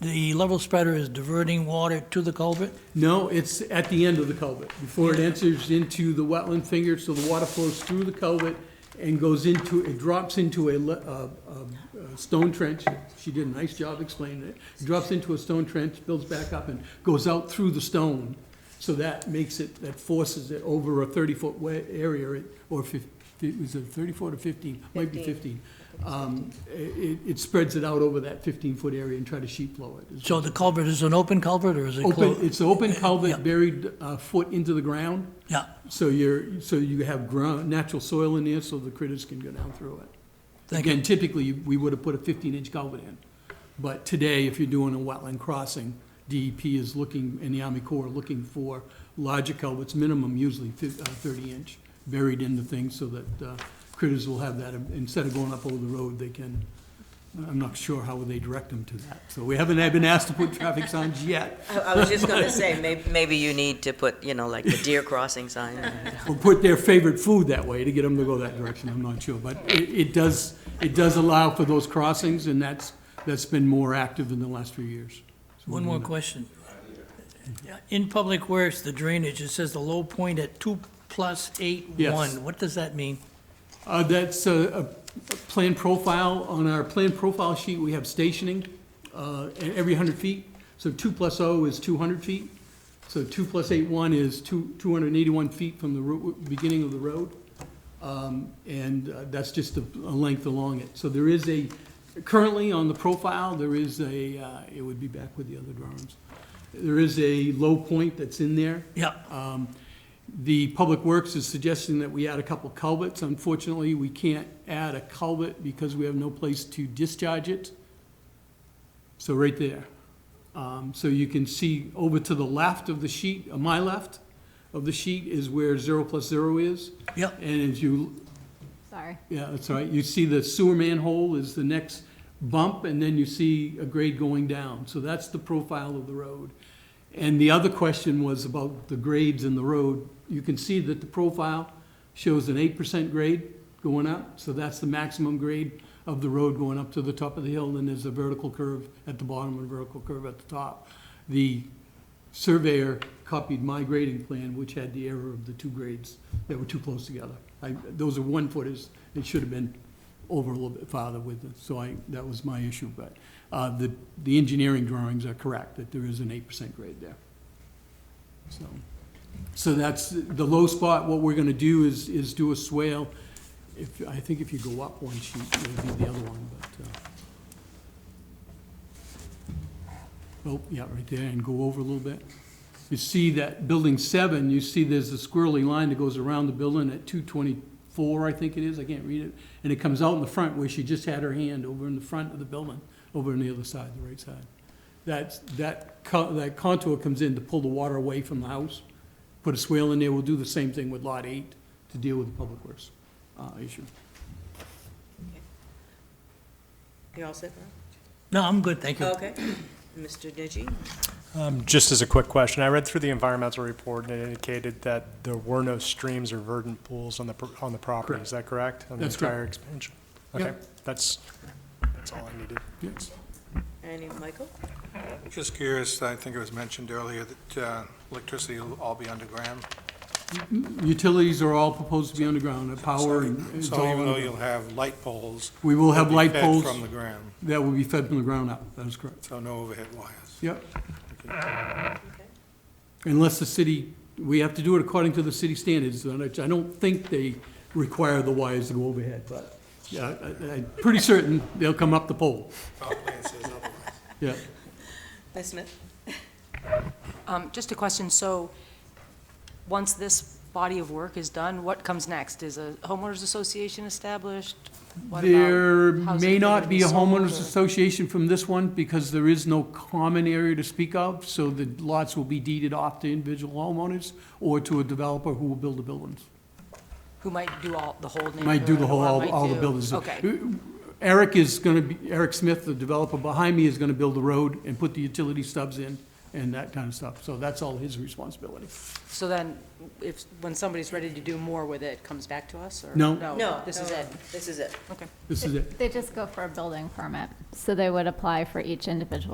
the level spreader is diverting water to the culvert? No, it's at the end of the culvert, before it enters into the wetland finger, so the water flows through the culvert and goes into, it drops into a, le- a- a- a stone trench. She did a nice job explaining it. Drops into a stone trench, builds back up and goes out through the stone. So that makes it, that forces it over a thirty-foot wa- area, it- or fif, it was it thirty-four or fifteen? Might be fifteen. Um, it, it spreads it out over that fifteen-foot area and try to sheet flow it. is So the culvert is an open culvert or is it Open, closed? it's an open Yeah. culvert buried a foot into the ground, Yeah, so you're, so you have ground, natural soil in there, so the critters can go down through it. thank you. Again, typically, you- we would have put a fifteen-inch culvert in, but today, if you're doing a wetland crossing, DEP is looking, and the Army Corps are looking for larger culverts, minimum usually uh, thirty-inch, buried in the thing, so that uh, critters will have that, instead of going up over the road, they can, I'm not sure how they direct them to that. So we haven't been asked to put traffic signs yet, I I was just going to say, may- maybe you need to put, you know, like the deer crossing sign. or put their favorite food that way to get them to go that direction, I'm not sure. But it, it does, it does allow for those crossings, and that's, that's been more active in the last few years. One more question. In Public Works, the drainage, it says the low point at two plus eight Yes. one. What does that mean? Uh, that's a, a plan profile, on our plan profile sheet, we have stationing, uh, e- every hundred feet. So two plus O is two hundred feet, so two plus eight one is two, two hundred and eighty-one feet from the ro- beginning of the road. Um, and uh, that's just the a length along it. So there is a, currently on the profile, there is a, uh, it would be back with the other drawings. There is a low point that's in there. Yeah, Um, The Public Works is suggesting that we add a couple culverts. Unfortunately, we can't add a culvert because we have no place to discharge it. So right there. Um, So you can see over to the left of the sheet, uh, my left of the sheet is where zero plus zero is. yeah, And as you Sorry. yeah, that's all right. You see the sewer manhole is the next bump, and then you see a grade going down. So that's the profile of the road. And the other question was about the grades in the road. You can see that the profile shows an eight percent grade going up, so that's the maximum grade of the road going up to the top of the hill, and there's a vertical curve at the bottom and a vertical curve at the top. The surveyor copied my grading plan, which had the error of the two grades that were too close together. I, those are one footers, it should have been over a little bit farther with it, so I, that was my issue, but, uh, the, the engineering drawings are correct, that there is an eight percent grade there. So, so that's the low spot, what we're gonna do is, is do a swale. If, I think if you go up one sheet, it would be the other one, but, uh, Oh, yeah, right there, and go over a little bit. You see that building seven, you see there's a squirrely line that goes around the building at two twenty-four, I think it is, I can't read it. And it comes out in the front where she just had her hand over in the front of the building, over on the other side, the right side. That's, that, co- that contour comes in to pull the water away from the house. Put a swale in there, we'll do the same thing with lot eight to deal with the public works, uh, issue. You all set, no, I'm good, thank you. Okay. Mr. Digi? Um, Just as a quick question, I read through the environmental report and it indicated that there were no streams or verdant pools on the, pro- on the property. Is that correct? On the That's correct. entire expansion? Yeah. Okay, that's, that's all I needed. Yes. Any, Michael? Just curious, I think it was mentioned earlier that uh, electricity will all be underground. Utilities are all proposed to be underground, uh, power and. it's So all even though underground. you'll have light poles. We will have they'll be light fed poles. From the ground, That will be fed from the ground up, that is correct. so no overhead wires. Yep, Okay. unless the city, we have to do it according to the city standards, and I I don't think they require the wires to go overhead, but yeah, I- I- I'm pretty certain they'll come up the pole, Power plant says otherwise. yeah. Ms. Smith? Um, Just a question, so, once this body of work is done, what comes next? Is a homeowners association established? What about There houses may that are not gonna be a sold, homeowners or- association from this one, because there is no common area to speak of, so the lots will be deeded off to individual homeowners or to a developer who will build the buildings. Who might do all, the whole neighborhood? Might do the or whole, all, might all the do- buildings. Okay, Eric is gonna be, Eric Smith, the developer behind me, is gonna build the road and put the utility stubs in and that kind of stuff. So that's all his responsibility. so then, if, when somebody's ready to do more with it, it comes back to us, or? No. No. Oh, This no, is no, it, This is it. okay. This is it. They just go for a building permit. So they would apply for each individual